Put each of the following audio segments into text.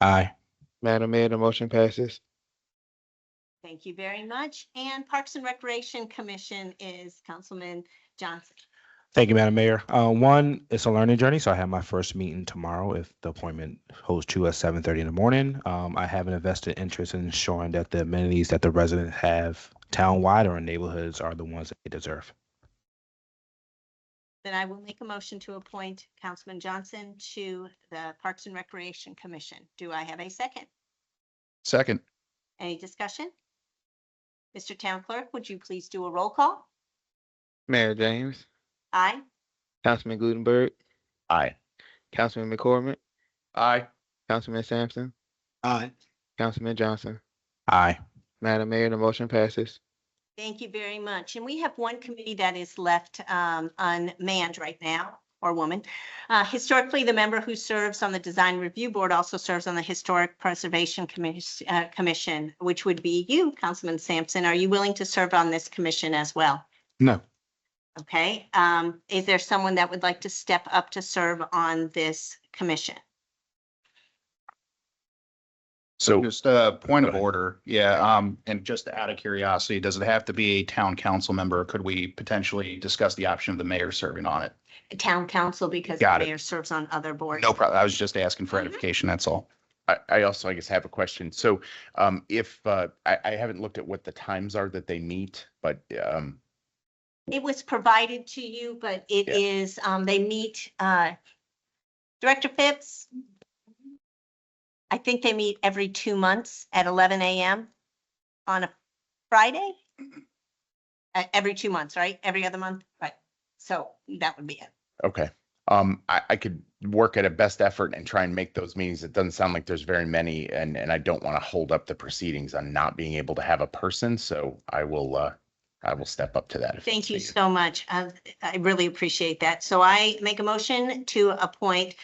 Aye. Madam Mayor, the motion passes. Thank you very much. And Parks and Recreation Commission is Councilman Johnson. Thank you, Madam Mayor. Uh, one, it's a learning journey, so I have my first meeting tomorrow if the appointment holds true at seven thirty in the morning. Um, I have an invested interest in ensuring that the amenities that the residents have townwide or in neighborhoods are the ones that they deserve. Then I will make a motion to appoint Councilman Johnson to the Parks and Recreation Commission. Do I have a second? Second, Any discussion? Mr. Town Clerk, would you please do a roll call? Mayor James, Aye. Councilman Gutenberg, aye. Councilman McCormick, Aye. Councilman Sampson, Aye. Councilman Johnson. Aye. Madam Mayor, the motion passes. Thank you very much. And we have one committee that is left um, unmanned right now, or woman. Uh, Historically, the member who serves on the Design Review Board also serves on the Historic Preservation Commis- uh, Commission, which would be you, Councilman Sampson. Are you willing to serve on this commission as well? No. Okay, um, is there someone that would like to step up to serve on this commission? So Just a point of Go ahead. order, yeah, um, and just out of curiosity, does it have to be a town council member? or Could we potentially discuss the option of the mayor serving on it? Town council, because the Got it. mayor serves on other boards. No problem, I was just asking for Mhm. edification, that's all. I, I also, I guess, have a question. So um, if, uh, I, I haven't looked at what the times are that they meet, but um, It was provided to you, but it Yeah. is, um, they meet, uh, Director Phipps. I think they meet every two months at eleven AM on a Friday. Uh, every two months, right? Every other month, right? So that would be it. okay. Um, I, I could work at a best effort and try and make those meetings. It doesn't sound like there's very many and, and I don't want to hold up the proceedings on not being able to have a person. So I will, uh, I will step up to that. if Thank it's you needed. so much. Uh, I really appreciate that. So I make a motion to appoint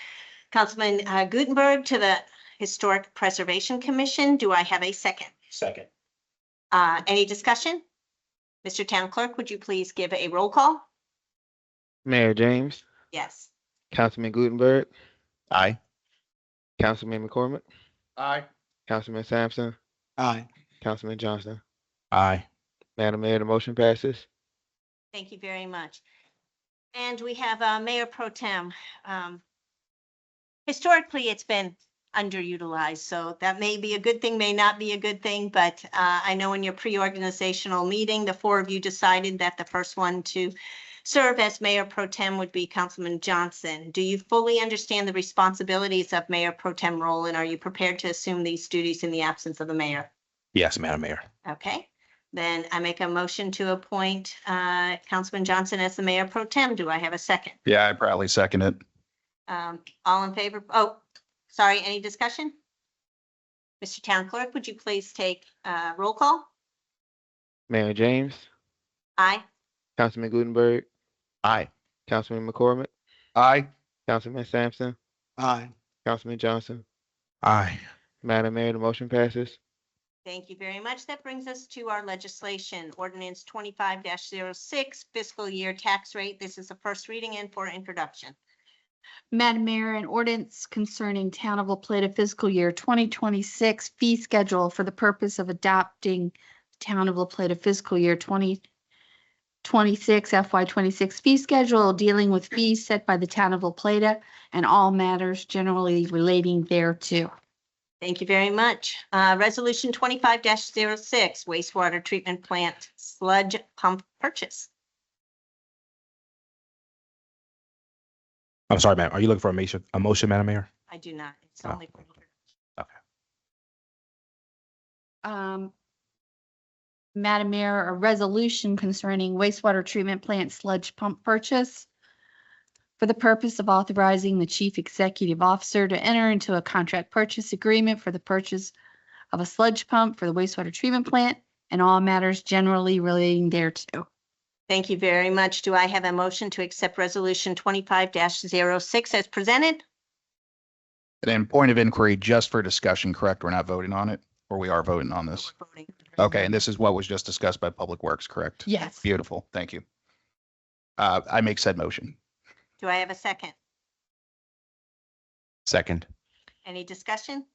Councilman uh, Gutenberg to the Historic Preservation Commission. Do I have a second? Second. Uh, any discussion? Mr. Town Clerk, would you please give a roll call? Mayor James, Yes. Councilman Gutenberg, Aye. Councilman McCormick, Aye. Councilman Sampson, Aye. Councilman Johnson. Aye. Madam Mayor, the motion passes. Thank you very much. And we have uh, Mayor Pro Tem. Um, Historically, it's been underutilized, so that may be a good thing, may not be a good thing, but uh, I know in your pre-organizational meeting, the four of you decided that the first one to serve as Mayor Pro Tem would be Councilman Johnson. Do you fully understand the responsibilities of Mayor Pro Tem role, and are you prepared to assume these duties in the absence of the mayor? Yes, Madam Mayor. Okay, then I make a motion to appoint uh, Councilman Johnson as the mayor pro tem. Do I have a second? Yeah, I probably second it. Um, All in favor? Oh, sorry, any discussion? Mr. Town Clerk, would you please take uh, roll call? Mayor James, Aye. Councilman Gutenberg, Aye. Councilman McCormick, Aye. Councilman Sampson, Aye. Councilman Johnson. Aye. Madam Mayor, the motion passes. Thank you very much. That brings us to our legislation, ordinance twenty-five 6 fiscal year tax rate. This is the first reading and for introduction. Madam Mayor, an ordinance concerning Town of La Plata fiscal year 2026 fee schedule for the purpose of adopting Town of La Plata fiscal year 2026 FY26 fee schedule dealing with fees set by the Town of La Plata and all matters generally relating thereto. Thank you very much. Uh, resolution twenty-five 6 wastewater treatment plant sludge pump purchase. I'm sorry, ma'am. Are you looking for a motion, a motion, Madam Mayor? I do not. It's Oh. only. for order. Um, Madam Mayor, a resolution concerning wastewater treatment plant sludge pump purchase for the purpose of authorizing the chief executive officer to enter into a contract purchase agreement for the purchase of a sludge pump for the wastewater treatment plant and all matters generally relating thereto. Thank you very much. Do I have a motion to accept resolution twenty-five 6 as presented? And then point of inquiry, just for discussion, correct? We're not voting on it, or we are voting on this? We're voting. Okay, and this is what was just discussed by Public Works, correct? Yes. Beautiful, thank you. Uh, I make said motion. Do I have a second? Second. Any discussion?